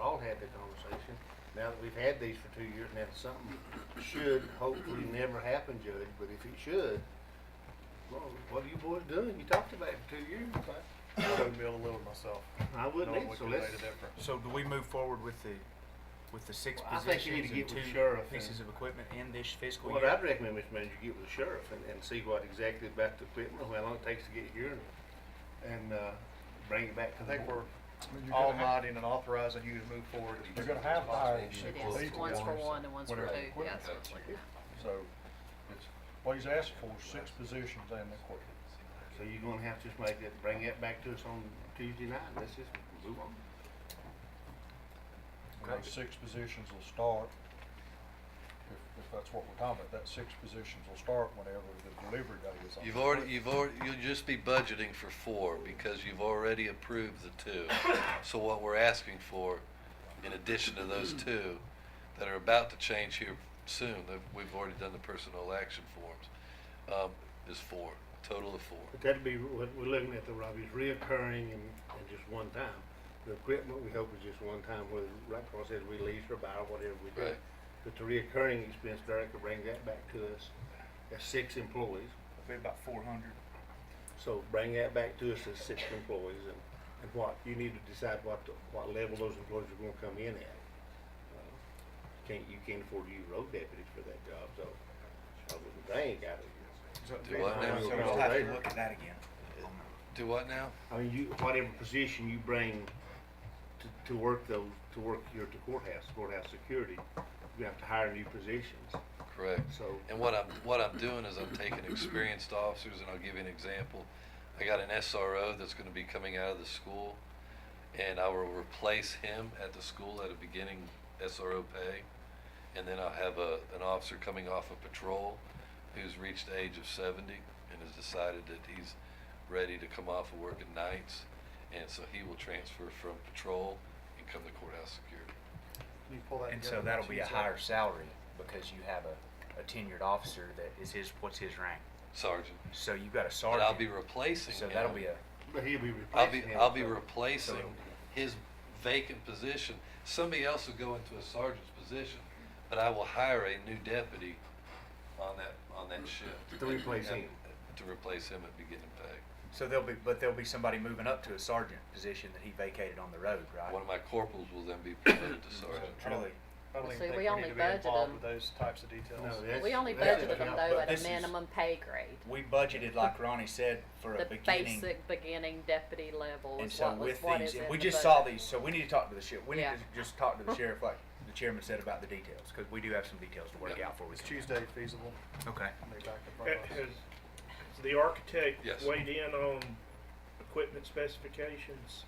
all had the conversation. Now that we've had these for two years, now something should hopefully never happen, Judge, but if it should, well, what are you boys doing? You talked about it for two years, I- I wouldn't be able to live with myself. I wouldn't Knowing either, we so could've let's, made a difference. So do we move forward with the, with the six Well, I think you need positions to get and with two sheriff pieces of equipment in this fiscal what year? I'd recommend, Mr. Manager, you get with the sheriff and, and see what exactly about the equipment, how long it takes to get here and, and, uh, bring it back I to the think board. we're You're gonna all have- nodding and authorizing you to move forward. You're gonna have to hire. these It people is, to one's for run one and one's for whatever two, equipment yes. takes. So, it's, what he's asked for, is six positions and the court. So you're gonna have to just make it, bring that back to us on Tuesday night, and let's just move on. And those six positions will start, if, if that's what we're talking about, that six positions will start whenever the delivery day is on. You've already, you've already, you'll just be budgeting for four because you've already approved the two. So what we're asking for, in addition to those two that are about to change here soon, that we've already done the personnel action forms, um, is four, total of four. But that'd be, what we're looking at the Robbie's reoccurring and, and just one time. The equipment, we hope is just one time, whether, like Paul says, we lease or buy or whatever we do. Right. But the reoccurring expense, Derek could bring that back to us, as six employees. It'd be about four hundred. So bring that back to us as six employees and, and what, you need to decide what, the- what level those employees are gonna come in at. You Can't, you can't afford to use road deputies for that job, so, I wouldn't think out of you. Do what now? So we'll have to look at that again. Do what now? I mean, you, whatever position you bring to, to work those, to work here at the courthouse, courthouse security, you have to hire new positions, Correct. so. And what I'm, what I'm doing is I'm taking experienced officers, and I'll give you an example. I got an SRO that's gonna be coming out of the school, and I will replace him at the school at a beginning SRO pay. And then I'll have a, an officer coming off of patrol who's reached the age of seventy and has decided that he's ready to come off of work at nights. And so he will transfer from patrol and come to courthouse security. Can you pull that And together so that'll be a Tuesday? higher salary because you have a, a tenured officer that is his, what's his rank? Sergeant. So you've got a And I'll sergeant. be replacing him. So that'll be a, But he'll be I'll be, replacing him. I'll be so- replacing so- his vacant position. Somebody else will go into a sergeant's position, but I will hire a new deputy on that, on that shift. To replace And- him. To replace him at beginning pay. so there'll be, but there'll be somebody moving up to a sergeant position that he vacated on the road, right? One of my corporals will then be promoted to sergeant. I don't- I don't See, even we think we only need to be budgeted involved them. with those types of details. No, that's- We only that's budgeted them not- though but at this a is- minimum pay grade. We budgeted, like Ronnie said, for a The beginning. basic beginning deputy level And is so what was, with what is these, in we the just saw budget. these, so we need to talk to the sheriff, we need Yeah. to just talk to the sheriff, like the chairman said about the details, cause we do have some details to work Yeah. out for we Is can. Tuesday feasible? Okay. Can they back in front Has of us? has the architect Yes. weighed in on equipment specifications?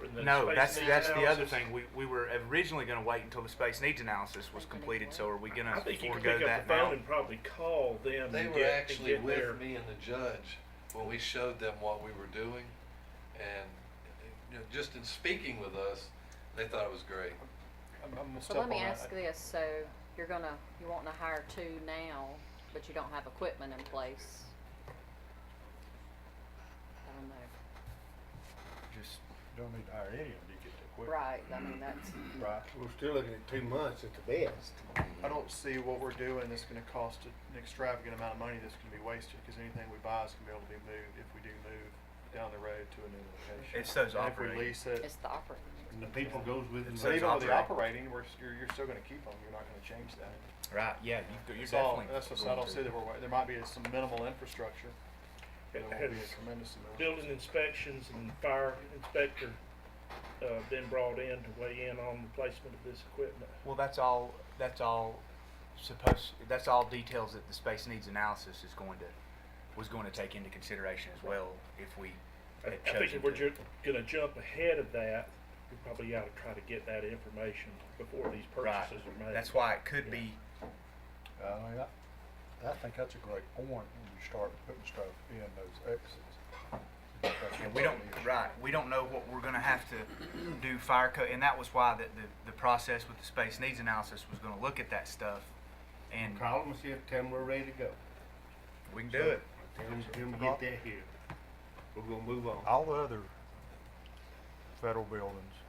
for the No, space that's, needs that's the other analysis? thing, we, we were originally gonna wait until the space needs analysis was completed, so are we I gonna think you could forego pick that up the now? phone and probably call them They and were get, and actually get their. with me and the judge when we showed them what we were doing. And, you know, just in speaking with us, they thought it was great. I'm, I'm gonna So step let on me ask that. this, so you're gonna, you wanting to hire two now, but you don't have equipment in place? I don't know, Just- You Don't need to hire any of them to get the equipment. right, I mean, that's, Right. We're still looking at two months at the best. I don't see what we're doing that's gonna cost an extravagant amount of money that's gonna be wasted, cause anything we buy is gonna be able to be moved if we do move down the road to a new location. It's those And operating. If we lease it, it's the operating. And the people goes with It's so those even them. with the operating. operating, we're, s- you're, you're still gonna keep them, you're not gonna change that. Right, yeah, you, you're It's all- definitely. That's what I going don't to. see that we're, wa- there might be some minimal infrastructure, but it won't be Has a tremendous amount. building inspections and fire inspector, uh, been brought in to weigh in on the placement of this equipment? Well, that's all, that's all supposed, that's all details that the space needs analysis is going to, was going to take into consideration as well if we I had I think chosen if we're to- ju- gonna jump ahead of that, we probably ought to try to get that information before these Right, purchases are made. that's why it could be, I mean, I, Uh, I think that's a great point when you start putting stuff in those exits. But that's and we don't, another issue. right, we don't know what we're gonna have to do fire code, and that was why the, the, the process with the space needs analysis was gonna look at that stuff, and Call them and see if, tell them we're ready to go. we can do it. Tell them, tell them get that here. We're gonna move on. All the other federal buildings